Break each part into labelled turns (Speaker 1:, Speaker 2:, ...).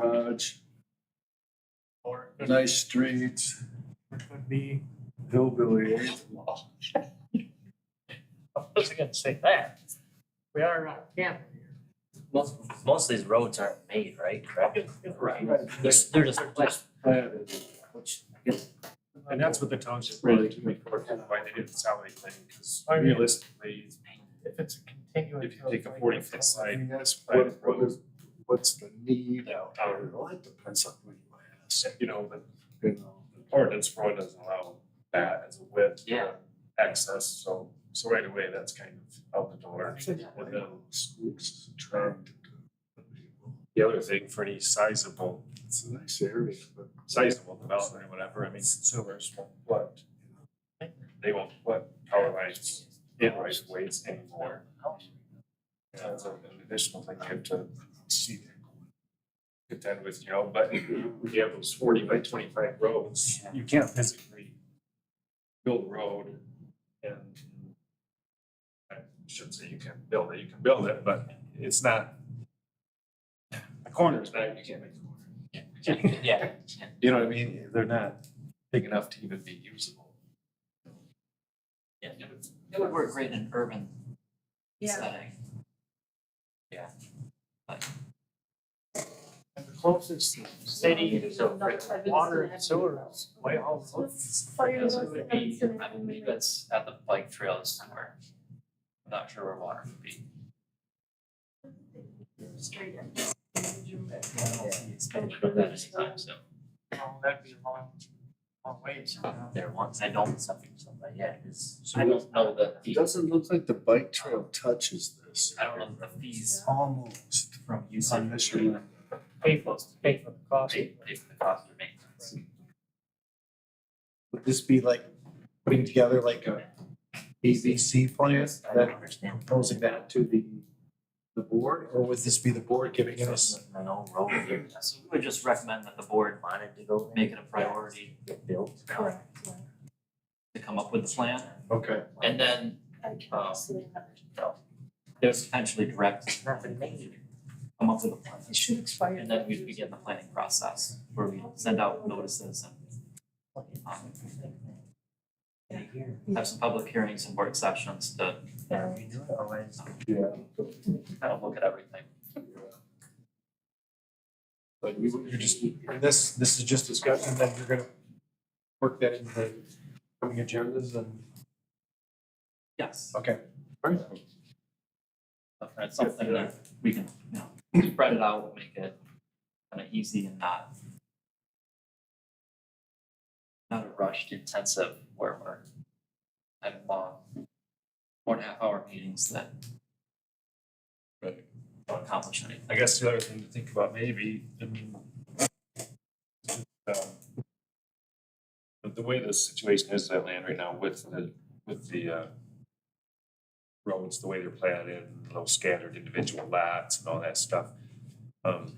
Speaker 1: village,
Speaker 2: Or it
Speaker 1: nice streets,
Speaker 2: could be,
Speaker 1: hillbilly. eh?
Speaker 2: well. I wasn't gonna say that. We are uh, on camera here.
Speaker 3: Most, most of these roads aren't made, right, correct?
Speaker 2: Right.
Speaker 3: They're, they're just flat,
Speaker 1: Planted.
Speaker 3: which,
Speaker 4: And that's what the township
Speaker 1: Really?
Speaker 4: really to make work, and why they did the salary thing, because
Speaker 2: I mean-
Speaker 4: realistically,
Speaker 2: If it's a continuous.
Speaker 4: if you take a
Speaker 2: road,
Speaker 4: forty
Speaker 2: like,
Speaker 4: foot side,
Speaker 1: that's
Speaker 4: private
Speaker 1: what- what
Speaker 4: road.
Speaker 1: is- What's the need?
Speaker 4: Yeah.
Speaker 1: I don't know, it depends on who you ask,
Speaker 4: you know, the
Speaker 1: you know.
Speaker 4: ordinance for it doesn't allow that as a width.
Speaker 3: Yeah.
Speaker 4: Access, so, so right away, that's kind of out the door.
Speaker 1: What the schools trying to do.
Speaker 4: The other thing for any sizable,
Speaker 1: It's a nice area, but.
Speaker 4: sizable development or whatever, I mean, consumers won't flood. They won't flood power lines in right of ways anymore. That's an additional thing you have to
Speaker 1: See that going.
Speaker 4: contend with, you know, but when you have those forty by twenty-five roads, you can't physically build a road and I shouldn't say you can't build it, you can build it, but it's not a corner is not, you can't make a corner.
Speaker 3: yeah,
Speaker 4: You know what I mean? They're not big enough to even be usable.
Speaker 3: yeah, it would- it would work great in an urban setting.
Speaker 2: And the closest city to water and sewer is Whitehall Road.
Speaker 5: Let's fire
Speaker 6: Because
Speaker 5: those
Speaker 6: it would be,
Speaker 5: guns and
Speaker 6: I believe
Speaker 5: everything.
Speaker 6: it's at the bike trail somewhere. I'm not sure where water would be.
Speaker 5: Straight in.
Speaker 6: It's been about that many times, so.
Speaker 2: Well, that'd be a long, long wait.
Speaker 3: Up There once, I don't something, something, yeah, it is.
Speaker 6: I don't know the
Speaker 1: It
Speaker 6: fees,
Speaker 1: doesn't look like the bike trail touches this.
Speaker 6: I don't know the fees
Speaker 1: Almost
Speaker 6: from
Speaker 1: on
Speaker 6: using
Speaker 1: this route.
Speaker 2: Pay for, pay for the cost.
Speaker 6: they they the cost of maintenance.
Speaker 1: Would this be like putting together like a ABC plan
Speaker 3: I don't
Speaker 1: that
Speaker 3: understand.
Speaker 1: proposing that to the the board, or would this be the board giving us?
Speaker 3: An old road here, so we would just recommend that the board wanted to go make it a priority. Get built. To
Speaker 5: Correct, yeah.
Speaker 3: come up with a plan,
Speaker 1: Okay.
Speaker 6: And then
Speaker 5: I
Speaker 6: Oh.
Speaker 5: can see that.
Speaker 3: there's potentially direct. Come up with a plan,
Speaker 5: It should expire.
Speaker 6: And then we
Speaker 5: after-
Speaker 6: begin the planning process, where we send out notices and um, have some public hearings and work sessions to
Speaker 3: Yeah, we do it always.
Speaker 1: Yeah.
Speaker 6: kind of look at everything.
Speaker 1: But you you're just, and this this is just discussion, then you're gonna work that into the coming agendas and.
Speaker 6: Yes.
Speaker 1: Okay.
Speaker 6: That's something that we can, you know, spread it out, make it kind of easy and not not a rushed intensive where we're having long, four and a half hour meetings that
Speaker 4: Right.
Speaker 6: don't accomplish anything.
Speaker 4: I guess the other thing to think about maybe, I mean, um, but the way the situation is at land right now with the, with the, uh, roads, the way they're planted, and those scattered individual lots and all that stuff, um,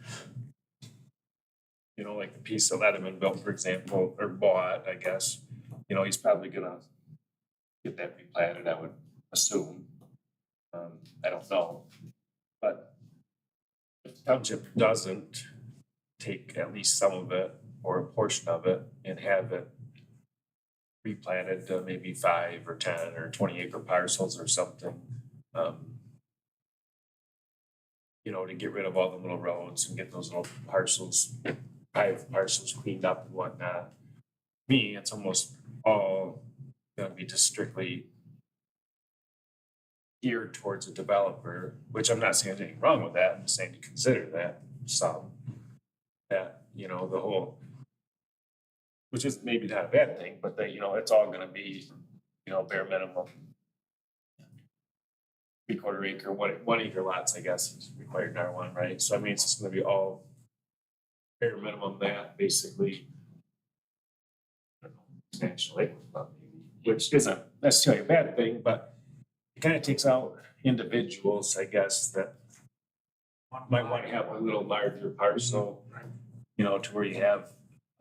Speaker 4: you know, like the piece that Letterman built, for example, or bought, I guess, you know, he's probably gonna get that replanted, I would assume. Um, I don't know, but if the township doesn't take at least some of it or a portion of it and have it replanted to maybe five or ten or twenty acre parcels or something, um, you know, to get rid of all the little roads and get those little parcels, private parcels cleaned up and whatnot. Me, it's almost all gonna be just strictly geared towards a developer, which I'm not saying there's anything wrong with that, I'm just saying to consider that some. That, you know, the whole, which is maybe not a bad thing, but that, you know, it's all gonna be, you know, bare minimum. Three quarter acre, one, one acre lots, I guess, is required in R one, right? So I mean, it's just gonna be all bare minimum that, basically. I don't know, National Lake, which isn't necessarily a bad thing, but it kind of takes out individuals, I guess, that might want to have a little larger parcel, you know, to where you have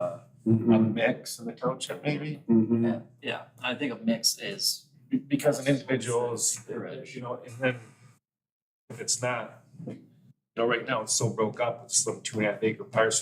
Speaker 4: uh, a mix in the township maybe.
Speaker 6: Yeah, yeah, I think a mix is,
Speaker 4: Be- Because an individual is, you know, and then if it's not, you know, right now it's so broke up, it's some two and a half acre parcel.